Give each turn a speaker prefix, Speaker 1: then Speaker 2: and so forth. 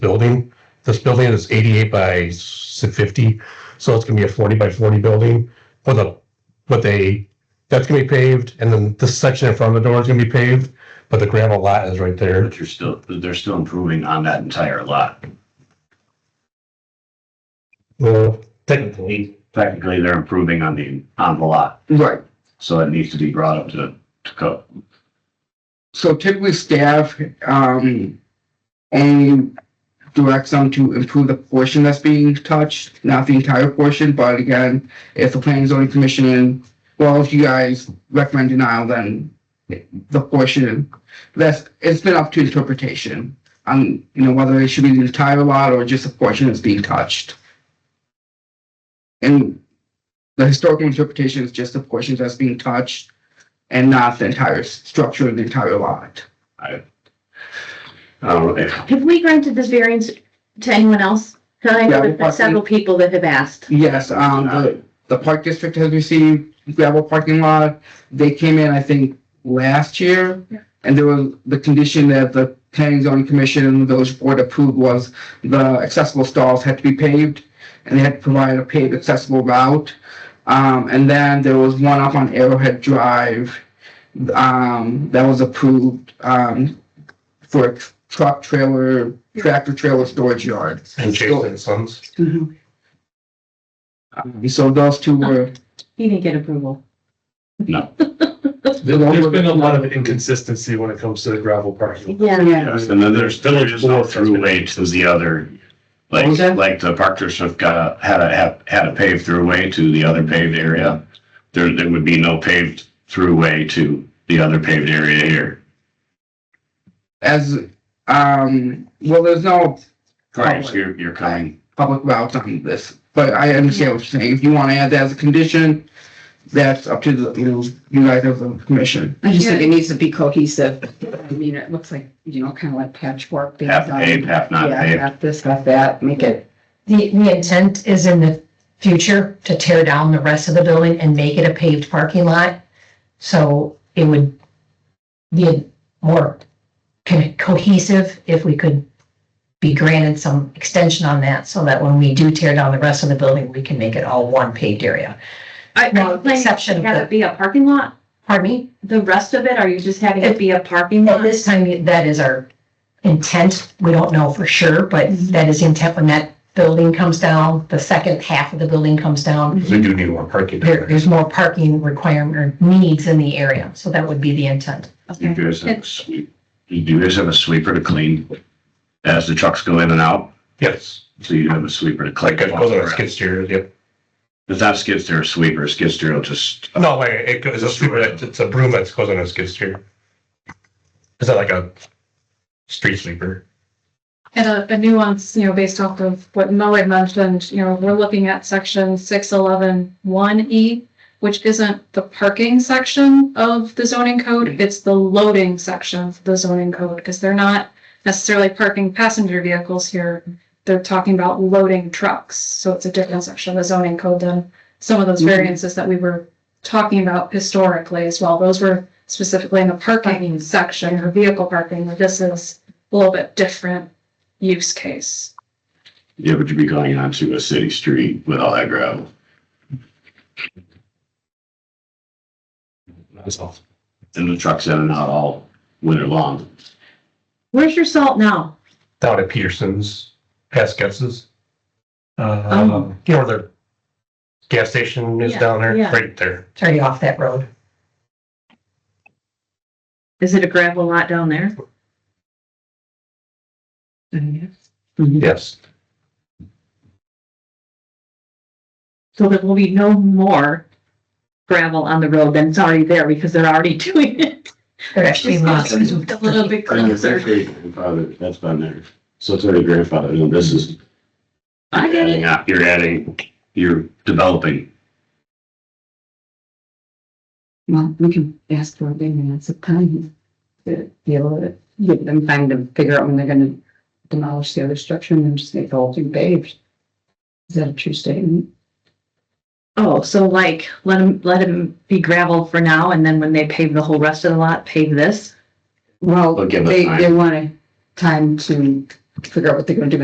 Speaker 1: building. This building is eighty-eight by s- fifty, so it's gonna be a forty by forty building with a, with a, that's gonna be paved, and then this section in front of the door is gonna be paved, but the gravel lot is right there.
Speaker 2: But you're still, they're still improving on that entire lot.
Speaker 1: Well, technically,
Speaker 2: Technically, they're improving on the, on the lot,
Speaker 3: Right,
Speaker 2: so it needs to be brought up to, to code.
Speaker 3: so typically staff, um, and directs them to improve the portion that's being touched, not the entire portion, but again, if the planning and zoning commission, well, if you guys recommend denial, then the portion, that's, it's been up to interpretation on, you know, whether it should be the entire lot or just a portion that's being touched. And the historical interpretation is just the portion that's being touched, and not the entire structure of the entire lot.
Speaker 2: I, I don't know if,
Speaker 4: Have we granted this variance to anyone else? 'Cause I know
Speaker 3: Yeah, we
Speaker 4: there's been
Speaker 3: partly-
Speaker 4: several people that have asked.
Speaker 3: Yes, um, the, the park district has received gravel parking lot. They came in, I think, last year.
Speaker 4: Yeah.
Speaker 3: And there was, the condition that the planning and zoning commission and the village board approved was the accessible stalls had to be paved and they had to provide a paved accessible route. Um, and then there was one up on Arrowhead Drive, um, that was approved, um, for truck trailer, tractor trailer storage yard.
Speaker 1: and Jason and Sons.
Speaker 3: Um, So those two were.
Speaker 4: He didn't get approval.
Speaker 2: no.
Speaker 5: There's been a lot of inconsistency when it comes to the gravel parking.
Speaker 4: Yeah.
Speaker 2: And then there's, there's just no throughway to the other, like, like the park district got a, had a, had- had a paved throughway to the other paved area. There, there would be no paved throughway to the other paved area here.
Speaker 3: As, um, well, there's no
Speaker 2: Right, so you're, you're coming,
Speaker 3: public routes on this, but I understand what you're saying. If you want to add that as a condition, that's up to the, you know, you guys as the commission.
Speaker 6: I just think it needs to be cohesive. I mean, it looks like, you know, kind of like patchwork. being
Speaker 2: half
Speaker 6: done.
Speaker 2: paved, half not
Speaker 6: Yeah,
Speaker 2: paved.
Speaker 6: half this, half that, make it,
Speaker 7: The, the intent is in the future to tear down the rest of the building and make it a paved parking lot. So it would be more co- cohesive if we could be granted some extension on that so that when we do tear down the rest of the building, we can make it all one paved area.
Speaker 4: I,
Speaker 7: No,
Speaker 4: are you planning
Speaker 7: exception
Speaker 4: to
Speaker 7: of
Speaker 4: have
Speaker 7: the-
Speaker 4: it be a parking lot?
Speaker 7: Pardon me?
Speaker 4: The rest of it, are you just having it be a parking
Speaker 7: At
Speaker 4: lot?
Speaker 7: this time, that is our intent. We don't know for sure, but that is intent when that building comes down, the second half of the building comes down.
Speaker 1: They're gonna need more parking.
Speaker 7: there, there's more parking requirement or needs in the area, so that would be the intent.
Speaker 2: You
Speaker 4: Okay.
Speaker 2: guys have a sweep, you guys have a sweeper to clean as the trucks go in and out,
Speaker 1: Yes,
Speaker 2: so you have a sweeper to clean.
Speaker 1: like it goes on a skid steer, yep.
Speaker 2: It's not skid steer, a sweeper, a skid steer will just,
Speaker 1: No, wait, it goes, it's a- it's a broom that goes on a skid steer. Is that like a street sweeper?
Speaker 8: And a, a nuance, you know, based off of what Mo had mentioned, you know, we're looking at section six eleven one E, which isn't the parking section of the zoning code, it's the loading section of the zoning code, because they're not necessarily parking passenger vehicles here. They're talking about loading trucks, so it's a different section of the zoning code than some of those
Speaker 3: Mhm.
Speaker 8: variances that we were talking about historically as well. Those were specifically in the parking
Speaker 4: Parking.
Speaker 8: section or vehicle parking, where this is a little bit different use case.
Speaker 2: yeah, but you'd be going onto a city street with all that gravel.
Speaker 1: That's all.
Speaker 2: And the trucks in and out all winter long.
Speaker 4: Where's your salt now?
Speaker 1: Down at Peterson's, past Gets's.
Speaker 4: Oh.
Speaker 1: Um, you know, where the gas station is
Speaker 4: Yeah,
Speaker 1: down there,
Speaker 4: yeah.
Speaker 1: right there.
Speaker 7: It's already off that road.
Speaker 4: Is it a gravel lot down there? Mm-hmm.
Speaker 1: Yes.
Speaker 4: So there will be no more gravel on the road than it's already there because they're already doing it.
Speaker 7: They're actually lots.
Speaker 4: Moved A little bit closer.
Speaker 2: grandfather, that's been there. So it's already grandfathered, and this is.
Speaker 4: I get it.
Speaker 2: You're adding- You're adding, you're developing.
Speaker 6: well, we can ask for a big amount of time to deal with it. Give them time to figure out when they're gonna demolish the other structure and then just make the whole thing paved. Is that a true statement?
Speaker 4: Oh, so like, let them, let them be gravel for now and then when they pave the whole rest of the lot, pave this?
Speaker 6: Well,
Speaker 4: Oh,
Speaker 2: They'll give us
Speaker 6: they,
Speaker 2: time.
Speaker 6: they want a time to figure out what they're gonna do